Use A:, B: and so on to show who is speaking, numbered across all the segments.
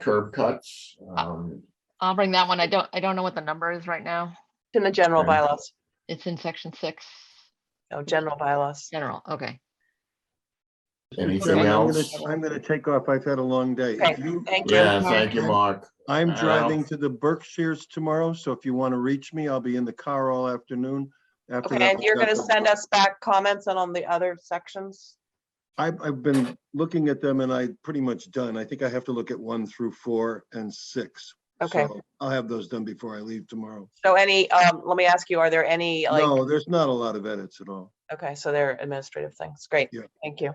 A: curb cuts.
B: Uh,
A: Um,
C: I'll bring that one. I don't, I don't know what the number is right now.
B: in the general
A: Okay.
B: bylaws,
C: It's in section six,
B: no, general bylaws.
C: general, okay.
A: Anything
C: Okay.
D: I'm gonna-
A: else?
D: I'm gonna take off. I've had a long day.
B: Okay,
D: If you-
B: Thank you.
A: Yeah, thank you, Mark.
D: I'm
A: Al.
D: driving to the Berkshires tomorrow, so if you want to reach me, I'll be in the car all afternoon. after
B: Okay,
D: that
B: and you're gonna
D: discussion.
B: send us back comments on, on the other sections?
D: I've, I've been looking at them and I pretty much done. I think I have to look at one through four and six.
B: Okay,
D: So I'll have those done before I leave tomorrow.
B: so any, um, let me ask you, are there any, like,
D: No, there's not a lot of edits at all.
B: okay, so they're administrative things, great,
D: Yeah.
B: thank you.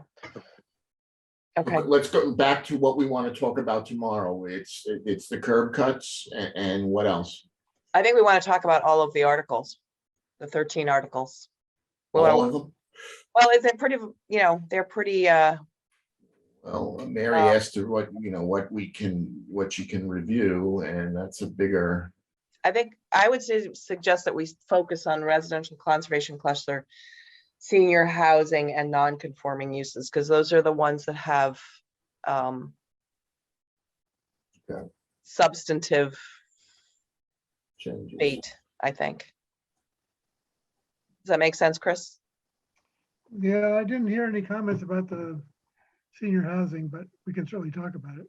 B: Okay,
A: Let's go back to what we want to talk about tomorrow. It's, it's the curb cuts and, and what else?
B: I think we wanna talk about all of the articles, the thirteen articles. We wanna-
A: All of them?
B: Well, is it pretty, you know, they're pretty, uh,
A: Well, Mary
B: Uh,
A: asked her what, you know, what we can, what you can review, and that's a bigger,
B: I think I would su- suggest that we s- focus on residential conservation cluster, senior housing and non-conforming uses, because those are the ones that have um
A: Okay.
B: substantive
A: change.
B: bait, I think. Does that make sense, Chris?
E: Yeah, I didn't hear any comments about the senior housing, but we can certainly talk about it.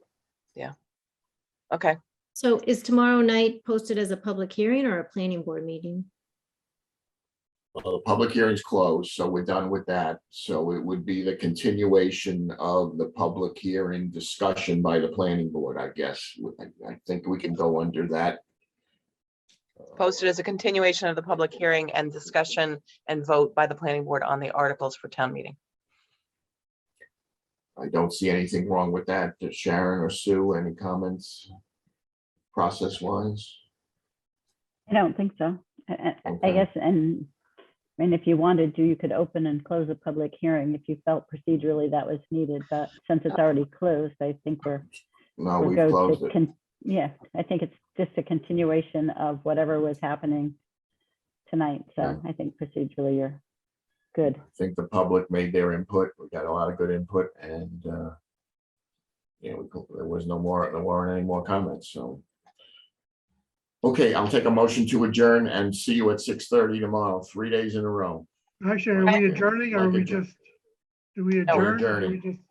B: Okay,
F: So is tomorrow night posted as a public hearing or a planning board meeting?
A: Well, the uh, public hearing's closed, so we're done with that. So it would be the continuation of the public hearing discussion by the planning board, I guess. I, I think we can go under that. Uh,
B: posted as a continuation of the public hearing and discussion and vote by the planning board on the articles for town meeting.
A: I don't see anything wrong with that. Does Sharon or Sue, any comments? Process wise?
G: I don't think so. I, I- I
A: Okay.
G: guess, and, and if you wanted to, you could open and close a public hearing if you felt procedurally that was needed, but since it's already closed, I think we're.
A: No,
G: we're
A: Oh, we
G: go to
A: closed it.
G: con- Yeah, I think it's just a continuation of whatever was happening tonight, so I think procedurally you're good.
A: I think the public made their input. We got a lot of good input and, uh, yeah, we co- there was no more, there weren't any more comments, so. Okay, I'll take a motion to adjourn and see you at six thirty tomorrow, three days in a row.
E: Actually, are we
A: Right.
E: adjourning or are
A: Like
E: we
A: adjourn-
E: just, do we
B: No, we're
E: adjourn? or do we
A: adjourning.
E: just-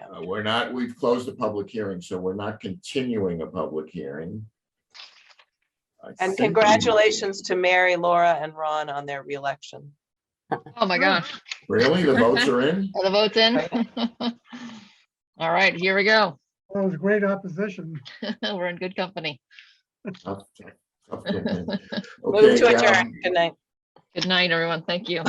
A: Uh, We're not, we've closed the public hearing, so we're not continuing a public hearing. I
B: And
A: think we-
B: congratulations to Mary, Laura and Ron on their reelection.
C: Oh my gosh,
A: Really? The votes are in?
C: are the votes in? All right, here we go.
E: That was great opposition.
C: We're in good company.
A: Tough, tough, tough, yeah, man.
B: Move
A: Okay,
B: to
A: um,
B: adjourn. Good night.
C: Good night, everyone. Thank you.